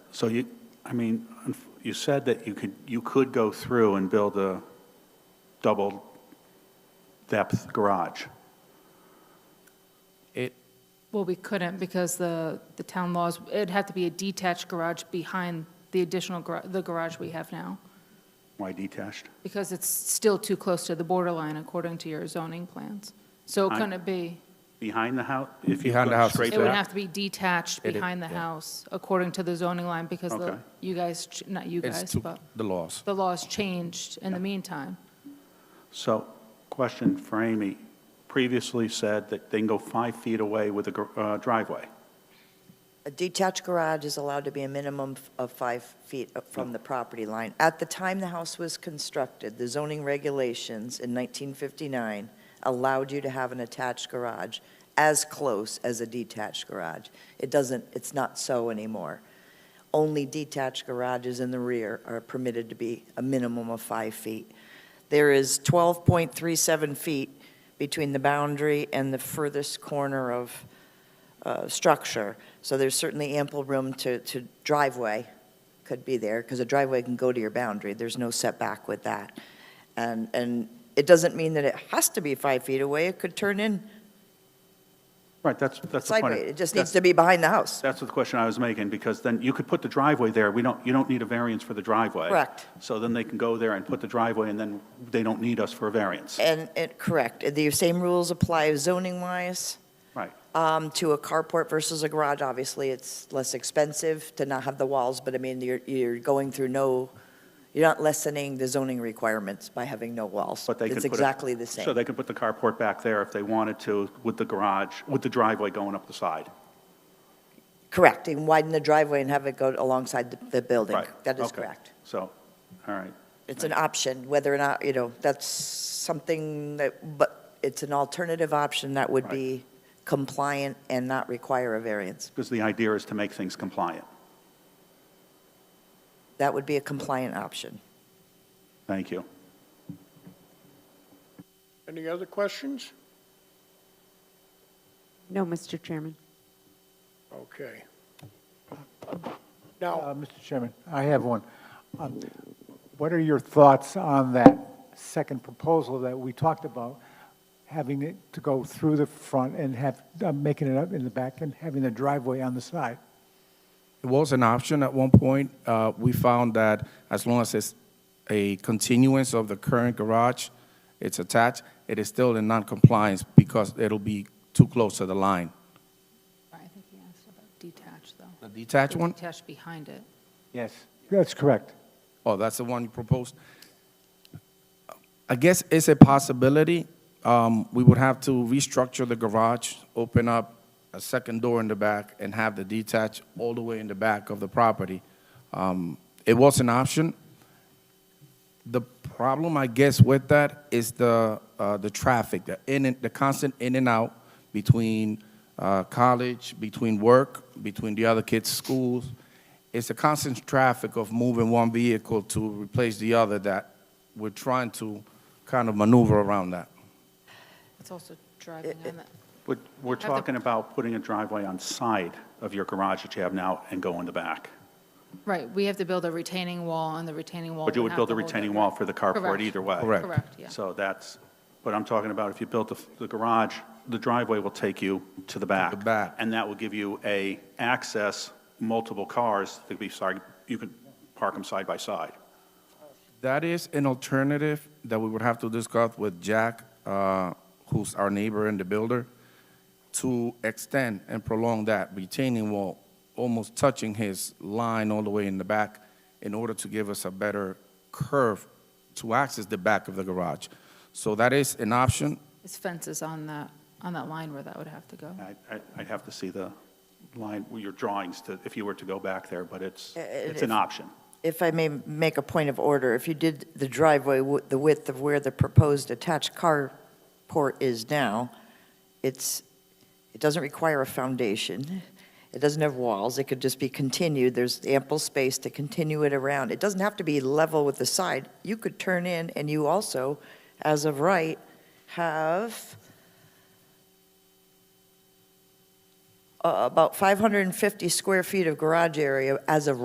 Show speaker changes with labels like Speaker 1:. Speaker 1: So you, I mean, unf- you said that you could, you could go through and build a double-depth garage.
Speaker 2: It,
Speaker 3: Well, we couldn't because the, the town laws, it'd have to be a detached garage behind the additional, gar- the garage we have now,
Speaker 1: Why detached?
Speaker 3: because it's still too close to the borderline according to your zoning plans. So
Speaker 1: I-
Speaker 3: couldn't it be?
Speaker 1: Behind the house? If you
Speaker 2: Behind the
Speaker 1: go
Speaker 2: house is
Speaker 1: straight
Speaker 3: It would
Speaker 1: back?
Speaker 3: have to be detached
Speaker 2: It-
Speaker 3: behind the
Speaker 2: yeah.
Speaker 3: house according to the zoning line because the,
Speaker 1: Okay.
Speaker 3: you guys, ch- not you
Speaker 2: it's
Speaker 3: guys,
Speaker 2: to
Speaker 3: but
Speaker 2: the laws.
Speaker 3: the laws changed in the meantime.
Speaker 1: So, question for Amy. Previously said that they can go five feet away with a gar- uh, driveway.
Speaker 4: A detached garage is allowed to be a minimum f- of five feet up from the property line. At the time the house was constructed, the zoning regulations in 1959 allowed you to have an attached garage as close as a detached garage. It doesn't, it's not so anymore. Only detached garages in the rear are permitted to be a minimum of five feet. There is 12.37 feet between the boundary and the furthest corner of uh, structure. So there's certainly ample room to, to driveway could be there, because a driveway can go to your boundary. There's no setback with that. And, and it doesn't mean that it has to be five feet away. It could turn in
Speaker 1: Right, that's, that's the point.
Speaker 4: sideways. It just needs to be behind the house.
Speaker 1: That's the question I was making, because then you could put the driveway there. We don't, you don't need a variance for the driveway.
Speaker 4: Correct.
Speaker 1: So then they can go there and put the driveway, and then they don't need us for a variance.
Speaker 4: And it, correct. The same rules apply zoning-wise.
Speaker 1: Right.
Speaker 4: Um, to a carport versus a garage, obviously, it's less expensive to not have the walls, but I mean, you're, you're going through no, you're not lessening the zoning requirements by having no walls.
Speaker 1: But they could
Speaker 4: It's
Speaker 1: put it-
Speaker 4: exactly the same.
Speaker 1: So they could put the carport back there if they wanted to, with the garage, with the driveway going up the side.
Speaker 4: Correct, and widen the driveway and have it go alongside the, the building.
Speaker 1: Right,
Speaker 4: That is
Speaker 1: okay.
Speaker 4: correct.
Speaker 1: So, all right.
Speaker 4: It's an option, whether or not, you know, that's something that, but it's an alternative option that would
Speaker 1: Right.
Speaker 4: be compliant and not require a variance.
Speaker 1: Because the idea is to make things compliant.
Speaker 4: That would be a compliant option.
Speaker 1: Thank you.
Speaker 5: Any other questions?
Speaker 6: No, Mr. Chairman.
Speaker 5: Okay. Now,
Speaker 7: Uh, Mr. Chairman, I have one. Um, What are your thoughts on that second proposal that we talked about, having it to go through the front and have, uh, making it up in the back and having the driveway on the side?
Speaker 2: It was an option at one point. Uh, We found that as long as it's a continuance of the current garage, it's attached, it is still in non-compliance because it'll be too close to the line.
Speaker 3: I think he asked about detached though.
Speaker 2: The detached one?
Speaker 3: Detached behind it.
Speaker 7: Yes. That's correct.
Speaker 2: Oh, that's the one you proposed? I guess it's a possibility. Um, We would have to restructure the garage, open up a second door in the back, and have the detached all the way in the back of the property. Um, It was an option. The problem, I guess, with that is the, uh, the traffic, the in, and- the constant in and out between uh, college, between work, between the other kids' schools. It's the constant traffic of moving one vehicle to replace the other that we're trying to kind of maneuver around that.
Speaker 3: It's also driving on that.
Speaker 1: But we're
Speaker 3: the-
Speaker 1: talking about putting a driveway on side of your garage that you have now and go in the back.
Speaker 3: Right, we have to build a retaining wall, and the retaining wall.
Speaker 1: But you would
Speaker 3: have
Speaker 1: build
Speaker 3: to
Speaker 1: a
Speaker 3: hold it.
Speaker 1: retaining wall for the carport
Speaker 3: Correct.
Speaker 1: either way.
Speaker 2: Correct.
Speaker 3: Correct, yeah.
Speaker 1: So that's, but I'm talking about if you built the the garage, the driveway will take you to the back.
Speaker 2: back.
Speaker 1: And that will give you a access, multiple cars, that could be, sorry, you could park them side by side.
Speaker 2: That is an alternative that we would have to discuss with Jack, uh, who's our neighbor and the builder, to extend and prolong that retaining wall, almost touching his line all the way in the back in order to give us a better curve to access the back of the garage. So that is an option.
Speaker 3: His fence is on that, on that line where that would have to go.
Speaker 1: I- I- I'd have to see the line, your drawings, to if you were to go back there, but it's, it's an option.
Speaker 4: If I may make a point of order, if you did the driveway, wi- the width of where the proposed attached carport is now, it's, it doesn't require a foundation. It doesn't have walls. It could just be continued. There's ample space to continue it around. It doesn't have to be level with the side. You could turn in, and you also, as of right, have uh, about 550 square feet of garage area as of